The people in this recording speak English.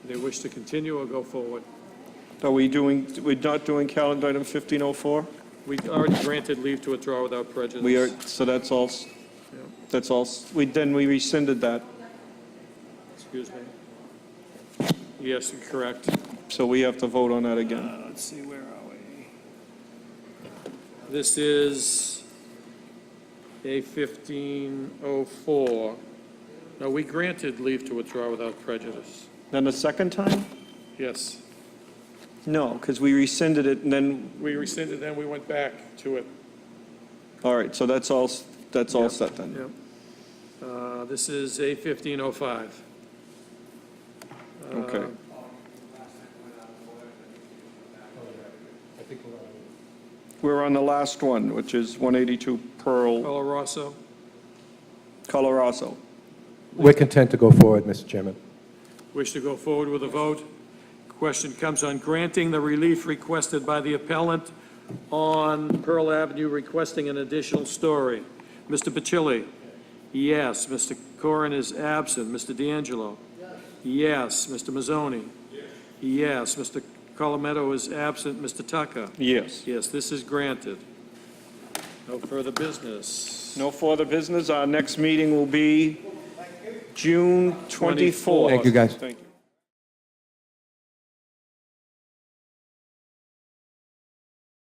they wish to continue or go forward. Are we doing, we're not doing calendar item 1504? We already granted leave to withdraw without prejudice. We are, so that's all, s- that's all, s- we, then we rescinded that. Excuse me. Yes, you're correct. So we have to vote on that again. Uh, Let's see, where are we? This is A 1504. Now, we granted leave to withdraw without prejudice. Then the second time? Yes. No, because we rescinded it and then, We rescinded, then we went back to it. all right, so that's all, s- that's all Yep. set then. Yep. Uh, This is A 1505. Okay. We're on the last one, which is 182 Pearl, Rosso. Colorado. We're content to go forward, Mr. Chairman. wish to go forward with a vote. Question comes on granting the relief requested by the appellant on Pearl Avenue requesting an additional story. Mr. Bacilli? Yes. Mr. Corrin is absent. Mr. D'Angelo? Yes. Mr. Mazzoni? Yes. Mr. Colometto is absent. Mr. Tucker? Yes. Yes, this is granted. No further business. No further business. Our next meeting will be June 24th. Thank you, guys. Thank you.